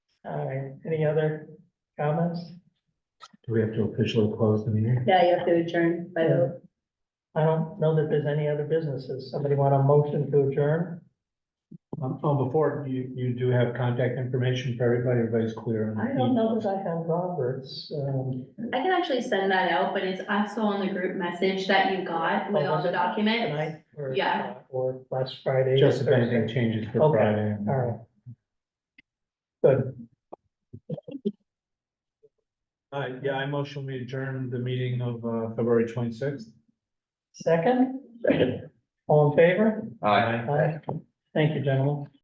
All right, any other comments? Do we have to officially close the meeting? Yeah, you have to adjourn by the, I don't know that there's any other businesses. Somebody want a motion to adjourn? Um, oh, before, you, you do have contact information for everybody, everybody's clear. on the I don't know emails. that I have Roberts, um, I can actually send that out, but it's also on the group message that you got with Oh, all was the it? documents. tonight or, Yeah. or last Friday. or Just if anything Thursday. changes for Okay, Friday. All right. Good, Uh, yeah, I motion we adjourn the meeting of, uh, February twenty-sixth. second? All in favor? Aye. Aye. Thank you, gentlemen.